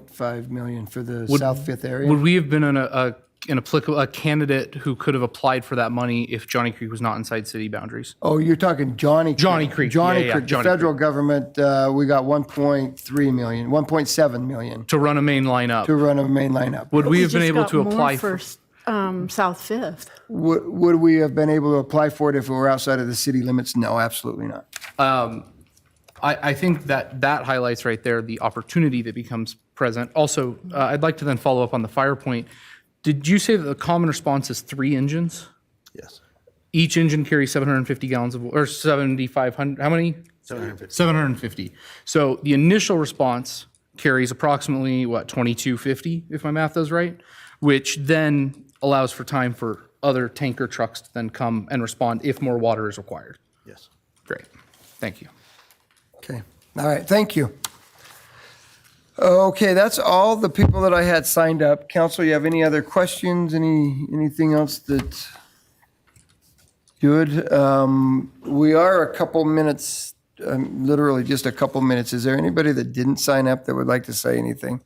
3.5 million for the Would- South Fifth area. Would we have been an, a, an applicable, a candidate who could have applied for that money if Johnny Creek was not inside city boundaries? Oh, you're talking Johnny. Johnny Creek. Yeah, Johnny yeah, Creek. The Johnny federal government, uh, we got 1.3 million, 1.7 million To run a main line up? to run a main lineup. Would we have been just able got to more apply for for? s- um, South Fifth. Would, would we have been able to apply for it if we were outside of the city limits? No, absolutely not. I, I think that that highlights right there the opportunity that becomes present. Also, uh, I'd like to then follow up on the fire point. Did you say that the common response is three engines? Yes. Each engine carries 750 gallons of, or 7,500, how many? 750. 750. So the initial response carries approximately, what, 2250, if my math is right? Which then allows for time for other tanker trucks to then come and respond if more water is required. Yes. Great, thank you. Okay. All right. Thank you. Okay, that's all the people that I had signed up. Council, you have any other questions? Any anything else that good? Um, we are a couple minutes, um, literally just a couple minutes. Is there anybody that didn't sign up that would like to say anything?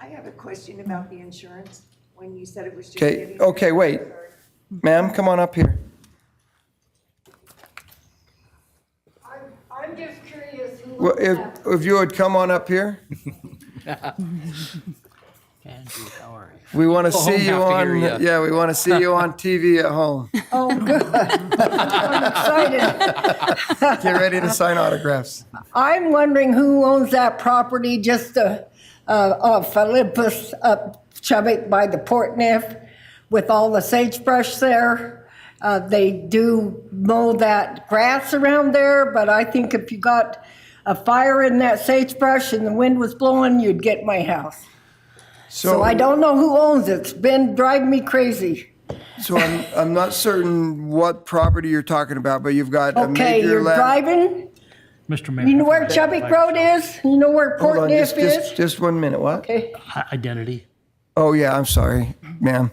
I have a question about the insurance, when you said it was just Okay. getting. Okay. Wait, ma'am, come on up here. I'm, I'm just curious who Well, looks if, at if you would come on up here, we want to home see you have to hear on. ya. Yeah, we want to see you on TV at home. Oh, good. I'm excited. Get ready to sign autographs. I'm wondering who owns that property just uh, uh, off Olympus up Chubbuck by the Port Neff with all the sagebrush there. Uh, They do mow that grass around there, but I think if you got a fire in that sagebrush and the wind was blowing, you'd get my house. So I don't know who owns it. It's been driving me crazy. So I'm, I'm not certain what property you're talking about, but you've got a Okay, major you're land. driving? Mr. Mayor. You know where Chubbuck Road is? You know Hold where Port on, just, Niff just, is? just one minute, what? Okay, I- Identity. Oh, yeah, I'm sorry, ma'am.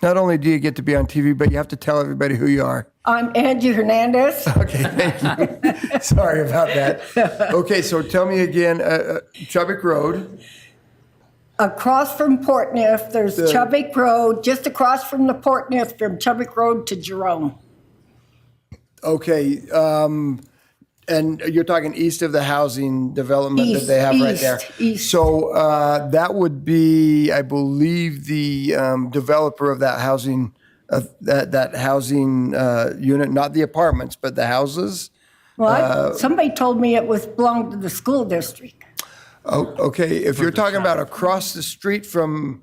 Not only do you get to be on TV, but you have to tell everybody who you are. I'm Angie Hernandez. Okay, thank you. Sorry about that. Okay, so tell me again, uh, uh, Chubbuck Road, Across from Port Niff, there's Chubbuck Road, just across from the Port Niff, from Chubbuck Road to Jerome. okay, um, and you're talking east of the housing development that East, they have right there. east, east. So, uh, that would be, I believe, the, um, developer of that housing, of that, that housing, uh, unit, not the apartments, but the houses. Uh, Well, I- somebody told me it was, belonged to the school district. Oh, okay, if you're talking about across the street from,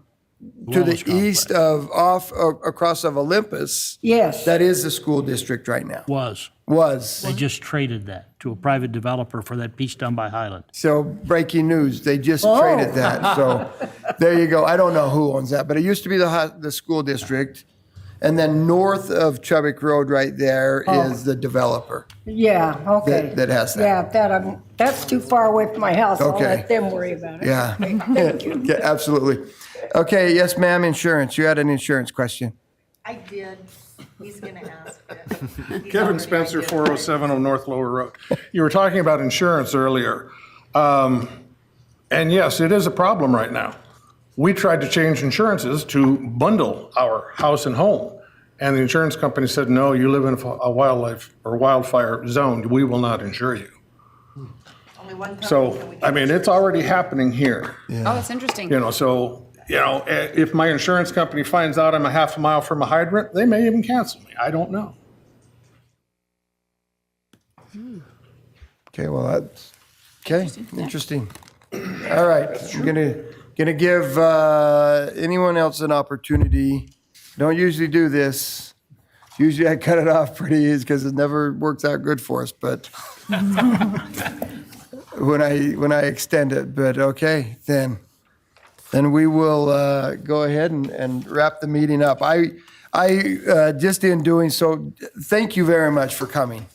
to the Wellness complex. east of, off, uh, across of Olympus, Yes, that is the school district right now, Was. was. They just traded that to a private developer for that piece down by Highland. So breaking news, they just traded that. So there you go. I don't know who owns that, but it used to be the ho- the school district, and then north of Chubbuck Road, right there, is the developer. yeah, okay. That- that has that. Yeah, that, I'm- that's too far away from my house. I'll Okay. let them worry about it. Yeah. yeah, absolutely. Okay. Yes, ma'am. Insurance. You had an insurance question. I did, he's gonna ask it. He's Kevin already Spencer, identified. 407 on North Lower Road. You were talking about insurance earlier. Um, And yes, it is a problem right now. We tried to change insurances to bundle our house and home. And the insurance company said, no, you live in a wildlife or wildfire zone. We will not insure you. Only one company So, can we I get mean, it's already happening here. Oh, that's interesting. You know, so, you know, i- if my insurance company finds out I'm a half a mile from a hydrant, they may even cancel me. I don't know. Okay. Well, that's okay. Interesting. All right. I'm gonna gonna give uh, anyone else an opportunity. Don't usually do this. Usually I cut it off pretty easy because it never works out good for us. But when I when I extend it, but okay, then then we will uh, go ahead and, and wrap the meeting up. I I uh, just in doing so, thank you very much for coming.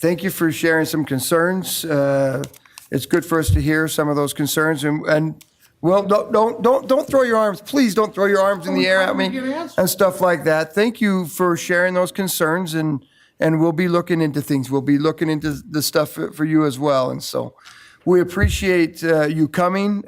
Thank you for sharing some concerns. Uh, it's good for us to hear some of those concerns and and. Well, don't, don't don't don't throw your arms. Please don't throw your arms in the air at me and stuff like that. Thank you for sharing those concerns and and we'll be looking into things. We'll be looking into the stuff for, for you as well. And so we appreciate uh, you coming